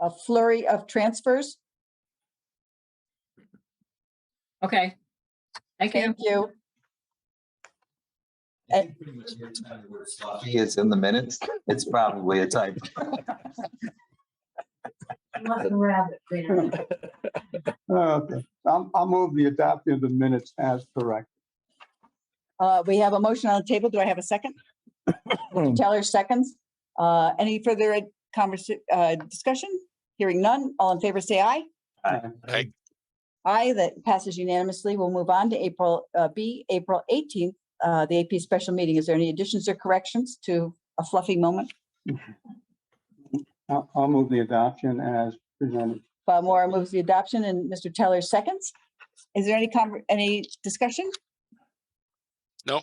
a flurry of transfers. Okay. Thank you. Thank you. I think pretty much every time the word Sloppy is in the minutes, it's probably a type. Okay, I'll, I'll move the adoption of the minutes as correct. Uh, we have a motion on the table. Do I have a second? Teller seconds. Uh, any further conversation, uh, discussion? Hearing none. All in favor, say aye. Aye. Aye, that passes unanimously. We'll move on to April, uh, B, April eighteenth, uh, the AP special meeting. Is there any additions or corrections to a fluffy moment? I'll, I'll move the adoption as presented. Bob Moore moves the adoption and Mr. Teller seconds. Is there any conver, any discussion? No.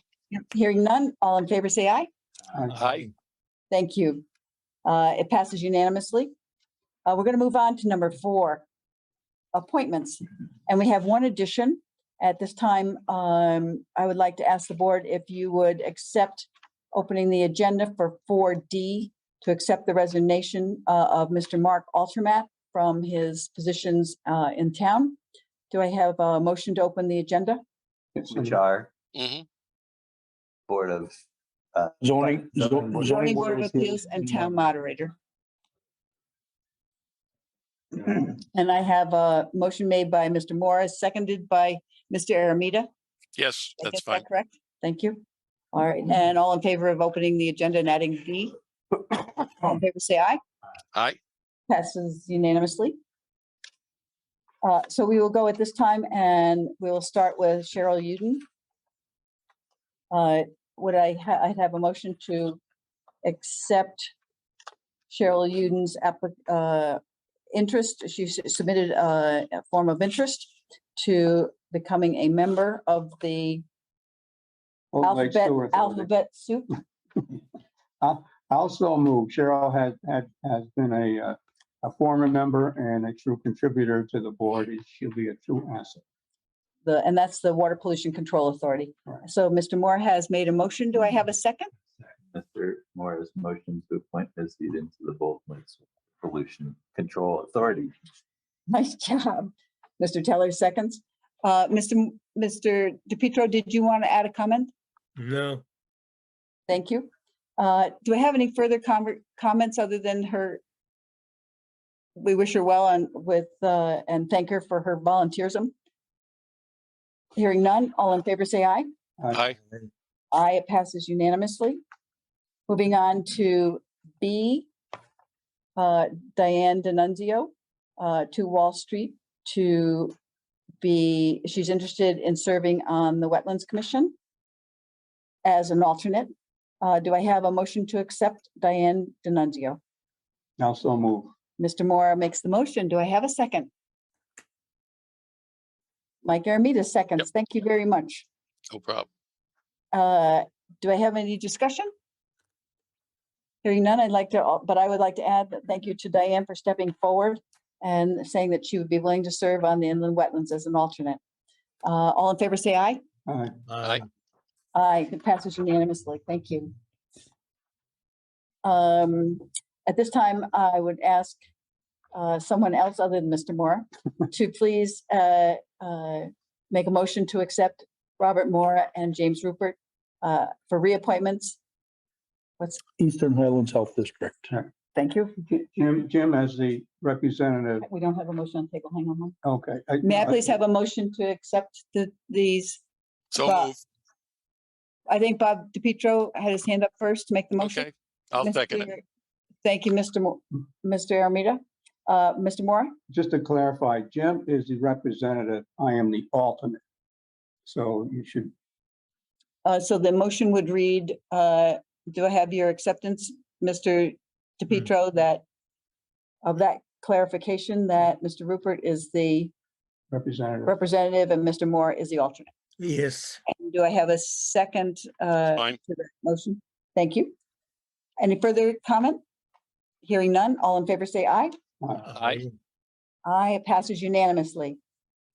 Hearing none. All in favor, say aye. Aye. Thank you. Uh, It passes unanimously. Uh, We're going to move on to number four, appointments. And we have one addition. At this time, um, I would like to ask the board if you would accept opening the agenda for 4D to accept the resignation uh, of Mr. Mark Altermat from his positions uh, in town. Do I have a motion to open the agenda? Which are Mhm. Board of, Zoning, Right, zo- zoning zoning Board of Appeals and Town Moderator. And I have a motion made by Mr. Morris, seconded by Mr. Aramita. Mm-hmm. Yes, I that's guess fine. that correct? Thank you. All right, and all in favor of opening the agenda and adding D? All in favor, say aye. Aye. Passes unanimously. Uh, So we will go at this time and we will start with Cheryl Uden. Uh, Would I, ha- I'd have a motion to accept Cheryl Uden's applic- uh, interest. She s- submitted uh, a form of interest to becoming a member of the Old Lake Alphabet, Sewer Authority. Alphabet Soup. Also move, Cheryl has, had, has been a, uh, a former member and a true contributor to the board. She'll be a true asset. the, and that's the Water Pollution Control Authority. Right. So Mr. Moore has made a motion. Do I have a second? Mr. Morris motion to appoint Ms. Eden to the Bolton Lakes Pollution Control Authority. Nice job. Mr. Teller seconds. Uh, Mr. M- Mr. DePietro, did you want to add a comment? No. Thank you. Uh, Do I have any further conver- comments other than her? We wish her well and with, uh, and thank her for her volunteerism. Hearing none, all in favor say aye. Aye. Aye, it passes unanimously. Moving on to B, uh, Diane D'Annunzio, uh, to Wall Street to be, she's interested in serving on the Wetlands Commission as an alternate. Uh, Do I have a motion to accept Diane D'Annunzio? Also move. Mr. Mora makes the motion. Do I have a second? Mike Aramita seconds. Thank you very much. No problem. Uh, Do I have any discussion? Hearing none, I'd like to, al- but I would like to add that thank you to Diane for stepping forward and saying that she would be willing to serve on the inland wetlands as an alternate. Uh, All in favor, say aye. Aye. Aye. Aye, it passes unanimously. Thank you. Um, At this time, I would ask uh, someone else other than Mr. Moore to please uh, uh, make a motion to accept Robert Moore and James Rupert uh, for reappointments. Eastern Highlands Health District. Thank you. J- Jim, Jim as the representative, We don't have a motion on the table. Hang on. Mm-hmm. one. okay. uh, May I please have a motion to accept the, these? Bob- So move. I think Bob DePietro had his hand up first to make the motion. Okay. I'll second it. Mr. Thank you, Mr. Mo- Mr. Armita. Uh, Mr. Moore? Just to clarify, Jim is the representative. I am the alternate. So you should Uh, so the motion would read, uh, do I have your acceptance, Mr. DePietro, that of that clarification that Mr. Rupert is the representative. representative and Mr. Moore is the alternate? Yes, And Do I have a second, uh, Fine. to the motion? Thank you. Any further comment? Hearing none, all in favor say aye. Aye. Aye, it passes unanimously.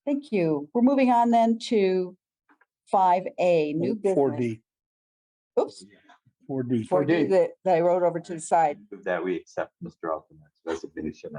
Thank you. We're moving on then to five A, new Four business. D, Oops, four D. four D 4D. that that I wrote over to the side. That we accept Mr. Altman's resignation